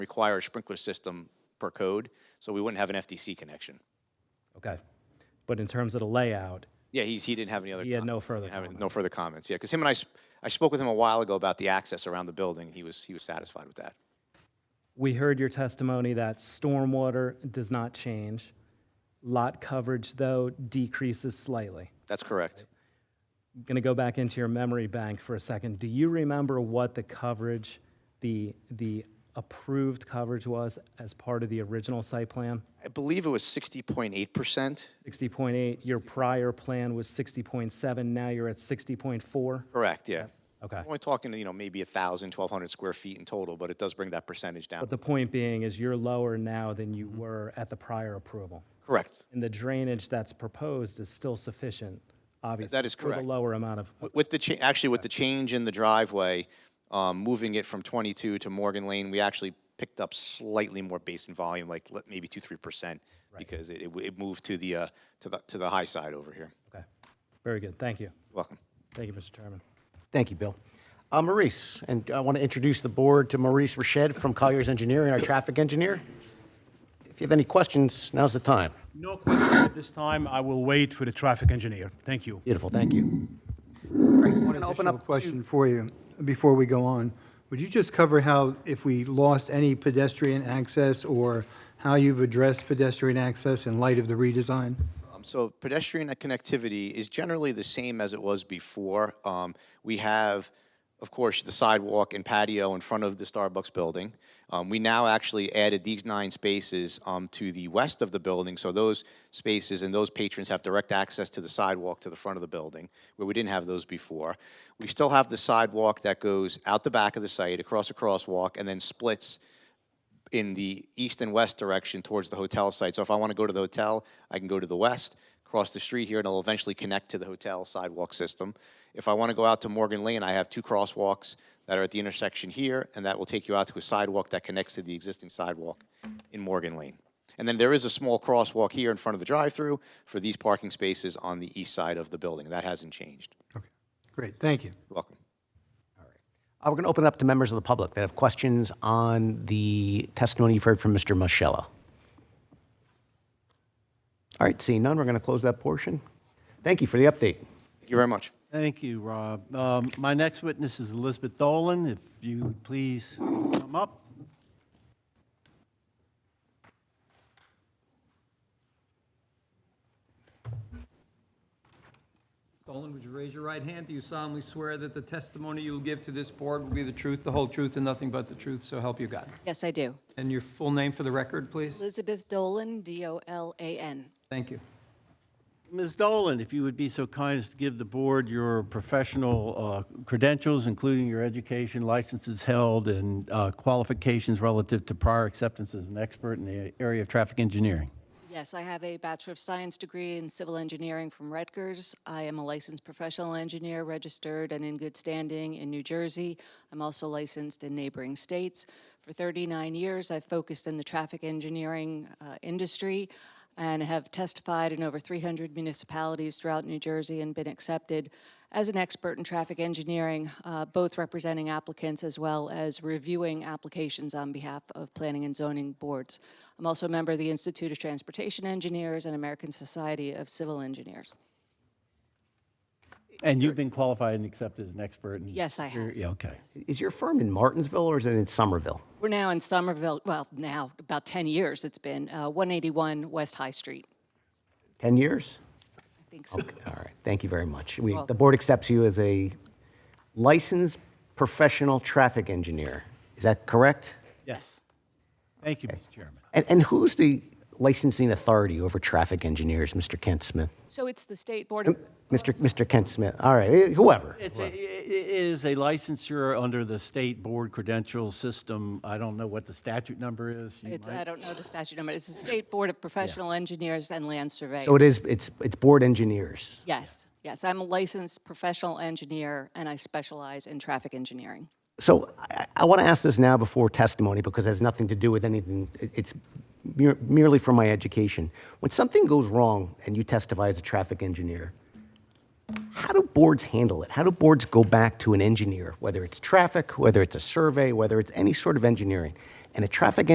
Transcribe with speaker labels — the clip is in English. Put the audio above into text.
Speaker 1: require a sprinkler system per code, so we wouldn't have an FDC connection.
Speaker 2: Okay. But in terms of the layout,
Speaker 1: Yeah, he's, he didn't have any other.
Speaker 2: he had
Speaker 1: com-
Speaker 2: no further
Speaker 1: didn't have any-
Speaker 2: comment.
Speaker 1: No further comments, yeah, because him and I, sp- I spoke with him a while ago about the access around the building. He was, he was satisfied with that.
Speaker 2: We heard your testimony that stormwater does not change. Lot coverage, though, decreases slightly.
Speaker 1: That's correct.
Speaker 2: going to go back into your memory bank for a second. Do you remember what the coverage, the, the approved coverage was as part of the original site plan?
Speaker 1: I believe it was 60.8%.
Speaker 2: 60.8, your prior plan was 60.7, now you're at 60.4?
Speaker 1: Correct, yeah.
Speaker 2: Okay.
Speaker 1: Only talking, you know, maybe 1,000, 1,200 square feet in total, but it does bring that percentage down.
Speaker 2: The point being is you're lower now than you were at the prior approval.
Speaker 1: Correct.
Speaker 2: And the drainage that's proposed is still sufficient, obviously.
Speaker 1: that is
Speaker 2: For
Speaker 1: correct.
Speaker 2: the lower amount of,
Speaker 1: With- With the, cha- actually, with the change in the driveway, um, moving it from 22 to Morgan Lane, we actually picked up slightly more basin volume, like li- maybe 2, 3%, because it- it w- it moved to the, uh, to the, to the high side over here.
Speaker 2: okay. Very good, thank you.
Speaker 1: Welcome.
Speaker 2: Thank you, Mr. Chairman.
Speaker 3: Thank you, Bill. Uh, Maurice, and I want to introduce the board to Maurice Rached from Colliers Engineering, our traffic engineer. If you have any questions, now's the time.
Speaker 4: No question at this time. I will wait for the traffic engineer. Thank you.
Speaker 3: Beautiful, thank you.
Speaker 5: One additional question for you before we go on. Would you just cover how, if we lost any pedestrian access or how you've addressed pedestrian access in light of the redesign?
Speaker 1: Um, So pedestrian connectivity is generally the same as it was before. Um, We have, of course, the sidewalk and patio in front of the Starbucks building. Um, We now actually added these nine spaces um, to the west of the building, so those spaces and those patrons have direct access to the sidewalk to the front of the building, where we didn't have those before. We still have the sidewalk that goes out the back of the site, across a crosswalk, and then splits in the east and west direction towards the hotel site. So if I want to go to the hotel, I can go to the west, cross the street here, and it'll eventually connect to the hotel sidewalk system. If I want to go out to Morgan Lane, I have two crosswalks that are at the intersection here, and that will take you out to a sidewalk that connects to the existing sidewalk in Morgan Lane. And then there is a small crosswalk here in front of the drive-through for these parking spaces on the east side of the building. That hasn't changed.
Speaker 5: Okay, great, thank you.
Speaker 1: You're welcome.
Speaker 3: Uh, We're going to open it up to members of the public that have questions on the testimony you've heard from Mr. Muscello. All right, seeing none, we're going to close that portion. Thank you for the update.
Speaker 1: Thank you very much.
Speaker 6: Thank you, Rob. Um, My next witness is Elizabeth Dolan. If you would please come up.
Speaker 7: Dolan, would you raise your right hand? Do you solemnly swear that the testimony you will give to this board will be the truth, the whole truth, and nothing but the truth, so help you God?
Speaker 8: Yes, I do.
Speaker 7: And your full name for the record, please?
Speaker 8: Elizabeth Dolan, D-O-L-A-N.
Speaker 7: Thank you.
Speaker 6: Ms. Dolan, if you would be so kind as to give the board your professional uh, credentials, including your education, licenses held, and uh, qualifications relative to prior acceptance as an expert in the area of traffic engineering.
Speaker 8: Yes, I have a Bachelor of Science degree in Civil Engineering from Rutgers. I am a licensed professional engineer, registered and in good standing in New Jersey. I'm also licensed in neighboring states. For 39 years, I've focused in the traffic engineering uh, industry and have testified in over 300 municipalities throughout New Jersey and been accepted as an expert in traffic engineering, uh, both representing applicants as well as reviewing applications on behalf of planning and zoning boards. I'm also a member of the Institute of Transportation Engineers and American Society of Civil Engineers.
Speaker 6: And you've been qualified and accepted as an expert? in-
Speaker 8: Yes, I have.
Speaker 6: Yeah, okay.
Speaker 3: Is your firm in Martinsville or is it in Somerville?
Speaker 8: We're now in Somerville, well, now, about 10 years it's been, uh, 181 West High Street.
Speaker 3: 10 years?
Speaker 8: I think so.
Speaker 3: All right, thank you very much. We, the board accepts you as a licensed professional traffic engineer. Is that correct?
Speaker 8: Yes.
Speaker 6: Thank you, Mr. Chairman.
Speaker 3: And, and who's the licensing authority over traffic engineers, Mr. Kent Smith?
Speaker 8: So it's the State Board of,
Speaker 3: Mr. Mr. Kent Smith, all right, eh, whoever.
Speaker 6: It's a, i- i- it is a licensure under the state board credential system. I don't know what the statute number is. You
Speaker 8: it's,
Speaker 6: might-
Speaker 8: I don't know the statute number, it's the State Board of Professional Engineers and Land Surveyors.
Speaker 3: So it is, it's, it's board engineers.
Speaker 8: Yes, yes, I'm a licensed professional engineer, and I specialize in traffic engineering.
Speaker 3: So I, I want to ask this now before testimony because it has nothing to do with anything. It- It's mere, merely for my education. When something goes wrong and you testify as a traffic engineer, how do boards handle it? How do boards go back to an engineer, whether it's traffic, whether it's a survey, whether it's any sort of engineering, And a traffic